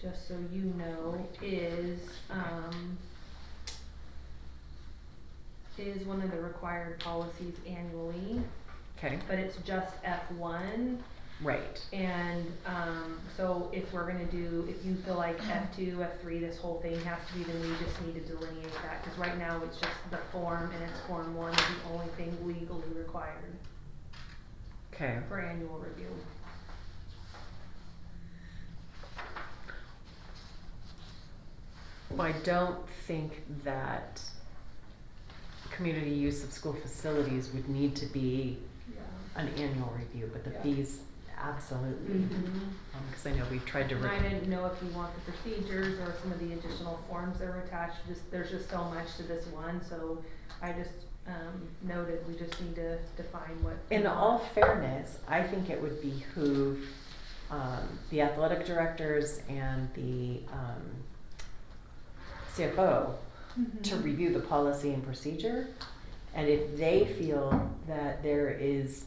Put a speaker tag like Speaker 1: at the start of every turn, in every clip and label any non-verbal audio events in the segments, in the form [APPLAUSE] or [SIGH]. Speaker 1: just so you know, is, um, is one of the required policies annually,
Speaker 2: Okay,
Speaker 1: but it's just F one.
Speaker 2: right.
Speaker 1: And, um, so if we're gonna do, if you feel like F two, F three, this whole thing has to be, then we just need to delineate that, cause right now it's just the form and it's form one is the only thing legally required
Speaker 2: Okay.
Speaker 1: for annual review.
Speaker 2: Well, I don't think that community use of school facilities would need to be
Speaker 1: Yeah.
Speaker 2: an annual review, but the
Speaker 1: Yeah.
Speaker 2: fees, absolutely.
Speaker 1: hmm
Speaker 2: Because I know we've tried to.
Speaker 1: And I
Speaker 2: re-
Speaker 1: didn't know if you want the procedures or some of the additional forms that are attached, just, there's just so much to this one, so I just, um, noted, we just need to define what.
Speaker 2: In all fairness, I think it would behoove um, the athletic directors and the um, CFO
Speaker 1: Mm-hmm.
Speaker 2: to review the policy and procedure. And if they feel that there is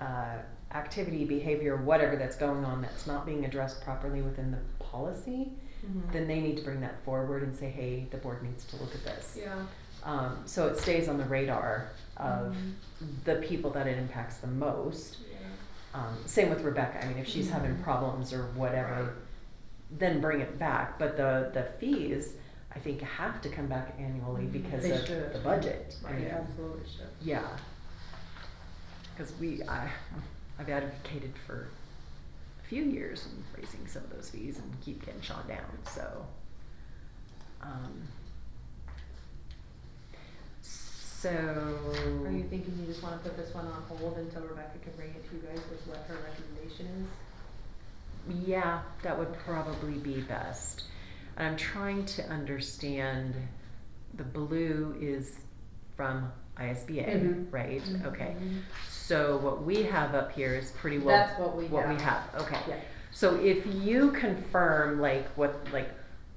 Speaker 2: uh, activity, behavior, whatever that's going on that's not being addressed properly within the policy,
Speaker 1: Mhm.
Speaker 2: then they need to bring that forward and say, hey, the board needs to look at this.
Speaker 1: Yeah.
Speaker 2: Um, so it stays on the radar of
Speaker 1: Mhm.
Speaker 2: the people that it impacts the most.
Speaker 1: Yeah.
Speaker 2: Um, same with Rebecca. I mean, if she's having
Speaker 1: Mhm.
Speaker 2: problems or whatever,
Speaker 1: Right.
Speaker 2: then bring it back. But the, the fees, I think, have to come back annually
Speaker 1: Mhm.
Speaker 2: because
Speaker 3: Mm-hmm. They
Speaker 2: of
Speaker 3: should.
Speaker 2: the budget. I
Speaker 1: Right.
Speaker 2: mean,
Speaker 3: Absolutely should.
Speaker 2: Yeah. Because we, I, I've advocated for a few years in raising some of those fees and keep getting shot down, so. um, So.
Speaker 1: Are you thinking you just wanna put this one on hold until Rebecca can bring it to you guys with what her recommendation is?
Speaker 2: Yeah, that would probably be best. And I'm trying to understand, the blue is from ISBA,
Speaker 3: Mhm.
Speaker 2: right? Okay.
Speaker 1: Mhm.
Speaker 2: So what we have up here is pretty well.
Speaker 3: That's what we
Speaker 2: What we have,
Speaker 3: have.
Speaker 2: okay.
Speaker 3: Yeah.
Speaker 2: So if you confirm like what, like,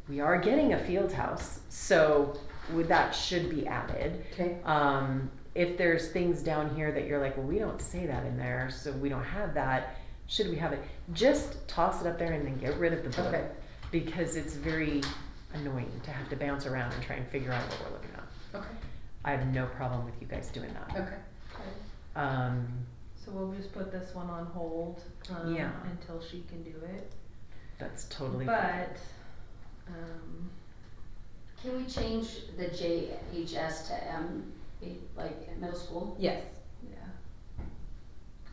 Speaker 2: we are getting a field house, so would, that should be added.
Speaker 3: Okay.
Speaker 2: Um, if there's things down here that you're like, well, we don't say that in there, so we don't have that, should we have it? Just toss it up there and then get rid of the blue.
Speaker 3: Okay.
Speaker 2: Because it's very annoying to have to bounce around and try and figure out what we're looking at.
Speaker 3: Okay.
Speaker 2: I have no problem with you guys doing that.
Speaker 3: Okay.
Speaker 2: Um,
Speaker 1: So we'll just put this one on hold, um,
Speaker 2: Yeah.
Speaker 1: until she can do it,
Speaker 2: that's totally. fine.
Speaker 1: but, um,
Speaker 4: Can we change the JHS to M, like middle school?
Speaker 3: Yes.
Speaker 1: yeah.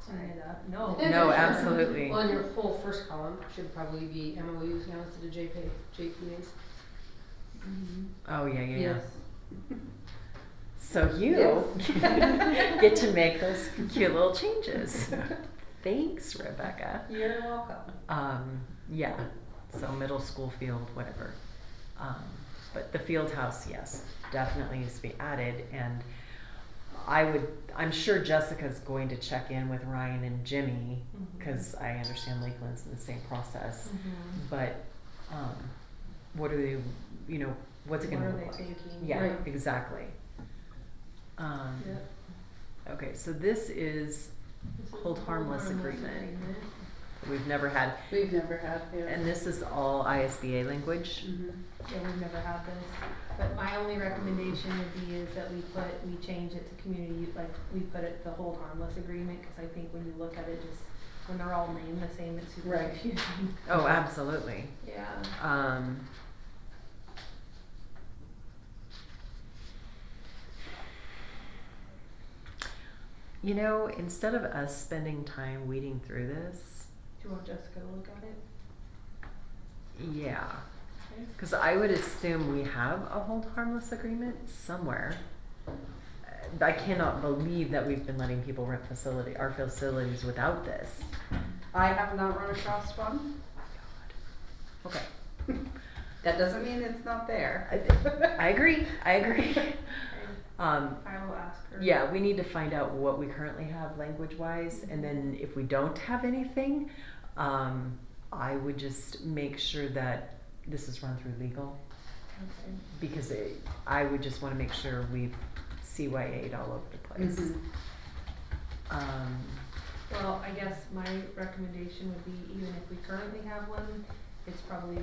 Speaker 1: Clean it up, no.
Speaker 2: No,
Speaker 1: [LAUGHS]
Speaker 2: absolutely.
Speaker 3: Well, in Oh. your whole first column should probably be MOUs now instead of JP, JPAs.
Speaker 1: Mhm.
Speaker 2: Oh, yeah, yeah, yeah.
Speaker 3: Yes.
Speaker 2: So you [LAUGHS]
Speaker 3: Yes. [LAUGHS]
Speaker 2: get to make those cute little changes. Thanks, Rebecca.
Speaker 3: You're welcome.
Speaker 2: Um, yeah, so middle school field, whatever. Um, but the field house, yes, definitely needs to be added. And I would, I'm sure Jessica's going to check in with Ryan and Jimmy
Speaker 1: Mm-hmm.
Speaker 2: because I understand Lakeland's in the same process.
Speaker 3: Mm-hmm.
Speaker 1: Mhm.
Speaker 2: But um, what are they, you know, what's it
Speaker 1: What
Speaker 2: going
Speaker 1: are
Speaker 2: to
Speaker 1: they
Speaker 2: look like?
Speaker 1: thinking?
Speaker 2: Yeah,
Speaker 3: Right.
Speaker 2: exactly. Um,
Speaker 1: Yep.
Speaker 2: Okay, so this is
Speaker 1: This is
Speaker 2: hold
Speaker 1: a
Speaker 2: harmless agreement that we've never had.
Speaker 3: We've never had, yeah.
Speaker 2: And this is all ISBA language.
Speaker 3: Mhm.
Speaker 1: Yeah, we've never had this, but my only recommendation would be is that we put, we change it to community, u- like, we put it the hold harmless agreement, cause I think when you look at it, just, when they're all named the same, it's super
Speaker 3: Right.
Speaker 1: confusing. [LAUGHS]
Speaker 2: Oh, absolutely.
Speaker 1: Yeah.
Speaker 2: Um, you know, instead of us spending time weeding through this,
Speaker 1: Do you want Jessica to look at it?
Speaker 2: yeah,
Speaker 1: Okay.
Speaker 2: Because I would assume we have a hold harmless agreement somewhere. Uh, I cannot believe that we've been letting people rent facility, our facilities without this.
Speaker 3: I have not run across one. [LAUGHS]
Speaker 2: Okay,
Speaker 3: That doesn't mean it's not there.
Speaker 2: I, I
Speaker 3: [LAUGHS]
Speaker 2: agree, I agree. [LAUGHS] Um,
Speaker 1: I will ask her.
Speaker 2: yeah, we need to find out what we currently have language wise, and then if we don't have anything, um, I would just make sure that this is run through legal.
Speaker 1: Okay.
Speaker 2: Because it, I would just wanna make sure we've CYA'd all over the place.
Speaker 3: Mhm.
Speaker 2: Um,
Speaker 1: Well, I guess my recommendation would be even if we currently have one, it's probably